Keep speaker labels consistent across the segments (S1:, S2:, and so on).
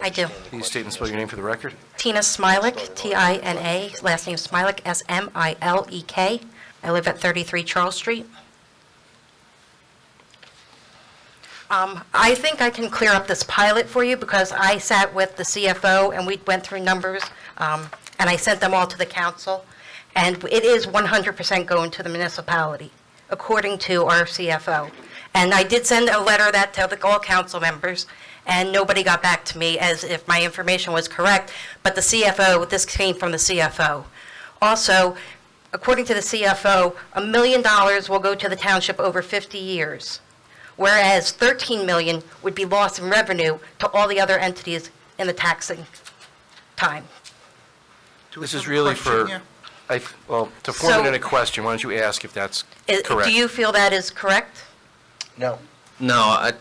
S1: I do.
S2: Can you state and spell your name for the record?
S1: Tina Smilek, T-I-N-A, last name Smilek, S-M-I-L-E-K. E I live at 33 Charles Street. Um, I think I can clear up this pilot for you because I sat with the CFO and we went through numbers, um, and I sent them all to the council, and it is 100% going to the municipality, according to our CFO. And I did send a letter that to the all council members, and nobody got back to me as if my information was correct, but the CFO, this came from the CFO. Also, according to the CFO, a million dollars will go to the township over 50 years whereas 13 million would be lost in revenue to all the other entities in the taxing time.
S2: This is really for, I, well, to
S1: So-
S2: form it in a question, why don't you ask if that's
S1: I-
S2: correct?
S1: Do you feel that is correct?
S3: No.
S4: No, I,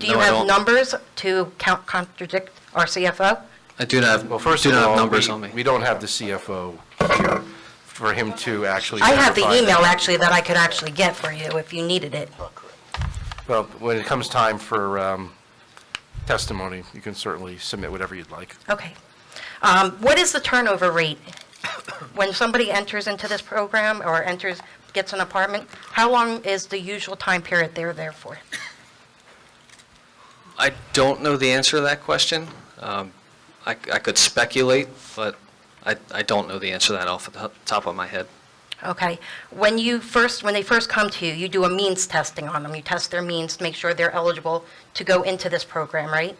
S1: Do
S4: no,
S1: you
S4: I
S1: have
S4: don't.
S1: numbers to count contradict our CFO?
S4: I do not,
S2: Well, first
S4: do
S2: of
S4: not have
S2: all,
S4: numbers on
S2: we, we
S4: me.
S2: don't have the CFO here for him to actually.
S1: I have the
S2: verify that.
S1: email actually that I could actually get for you if you needed it.
S2: Well, when it comes time for um, testimony, you can certainly submit whatever you'd like.
S1: Okay. Um, What is the turnover rate? When somebody enters into this program or enters, gets an apartment, how long is the usual time period they're there for?
S4: I don't know the answer to that question. Um, I, I could speculate, but I, I don't know the answer to that off the top- top of my head.
S1: Okay. When you first, when they first come to you, you do a means testing on them. You test their means to make sure they're eligible to go into this program, right?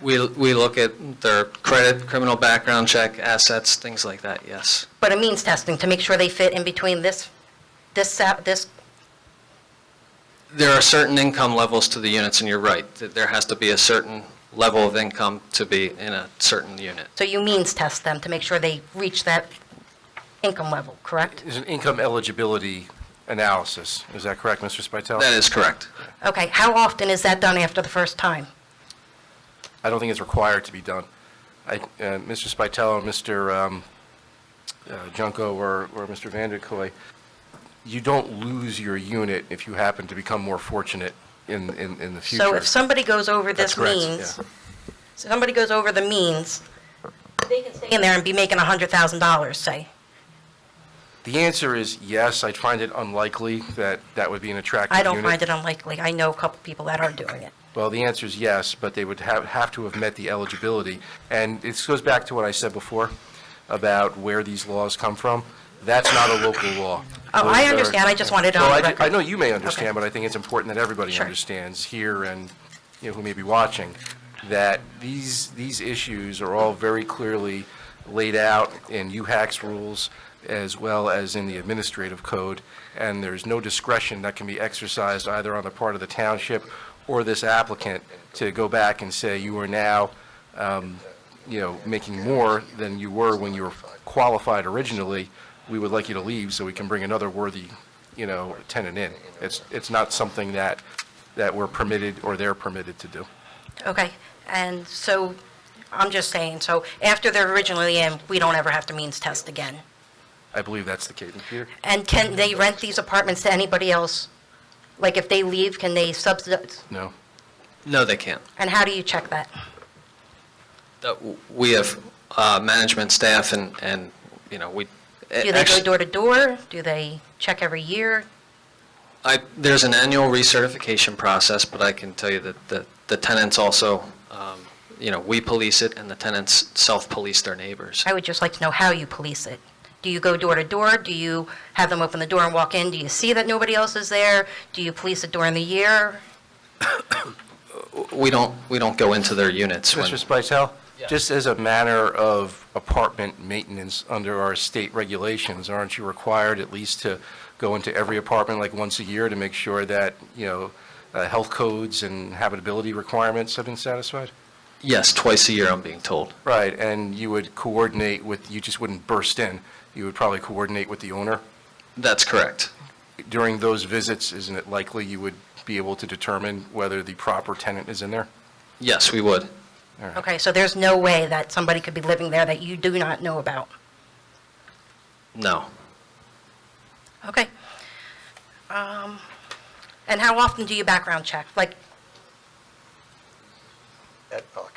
S4: We, we look at their credit, criminal background check, assets, things like that, yes.
S1: But a means testing to make sure they fit in between this, this, sa- this,
S4: There are certain income levels to the units, and you're right, that there has to be a certain level of income to be in a certain unit.
S1: so you means test them to make sure they reach that income level, correct?
S2: There's an income eligibility analysis, is that correct, Mr. Spital?
S4: That is correct.
S1: Okay. How often is that done after the first time?
S2: I don't think it's required to be done. I, uh, Mr. Spital, Mr. um, uh, Junko, or, or Mr. Vanderkoy, you don't lose your unit if you happen to become more fortunate in, in, in the future.
S1: So if somebody goes over this
S2: That's correct,
S1: means,
S2: yeah.
S1: somebody goes over the means, they can stay in there and be making $100,000, say.
S2: The answer is yes, I find it unlikely that that would be an attractive
S1: I
S2: unit.
S1: don't find it unlikely. I know a couple people that are doing it.
S2: Well, the answer is yes, but they would have, have to have met the eligibility. And this goes back to what I said before about where these laws come from. That's not a local law.
S1: Oh, I
S2: Those are-
S1: understand. I just wanted it on
S2: Well, I-
S1: record.
S2: I know you may understand,
S1: Okay.
S2: but I think it's important that everybody
S1: Sure.
S2: understands here and, you know, who may be watching, that these, these issues are all very clearly laid out in UHAC's rules as well as in the administrative code, and there's no discretion that can be exercised either on the part of the township or this applicant to go back and say, you are now, um, you know, making more than you were when you were qualified originally, we would like you to leave so we can bring another worthy, you know, tenant in. It's, it's not something that, that we're permitted or they're permitted to do.
S1: Okay, and so, I'm just saying, so after they're originally in, we don't ever have to means test again.
S2: I believe that's the case. Peter?
S1: And can they rent these apartments to anybody else? Like, if they leave, can they subsidize?
S2: No.
S4: No, they can't.
S1: And how do you check that?
S4: That w- We have uh, management staff and, and, you know, we.
S1: Do they go
S4: actually-
S1: door to door? Do they check every year?
S4: I, there's an annual recertification process, but I can tell you that the, the tenants also, um, you know, we police it and the tenants self-police their neighbors.
S1: I would just like to know how you police it. Do you go door to door? Do you have them open the door and walk in? Do you see that nobody else is there? Do you police it during the year?
S4: We don't, we don't go into their units when,
S2: Mr. Spital, just as a matter of apartment maintenance under our state regulations, aren't you required at least to go into every apartment like once a year to make sure that, you know, uh, health codes and habitability requirements have been satisfied?
S4: yes, twice a year, I'm being told.
S2: Right, and you would coordinate with, you just wouldn't burst in. You would probably coordinate with the owner.
S4: That's correct.
S2: During those visits, isn't it likely you would be able to determine whether the proper tenant is in there?
S4: Yes, we would.
S1: Okay, so there's no way that somebody could be living there that you do not know about?
S4: No.
S1: Okay. Um, And how often do you background check? Like,
S3: At- oh,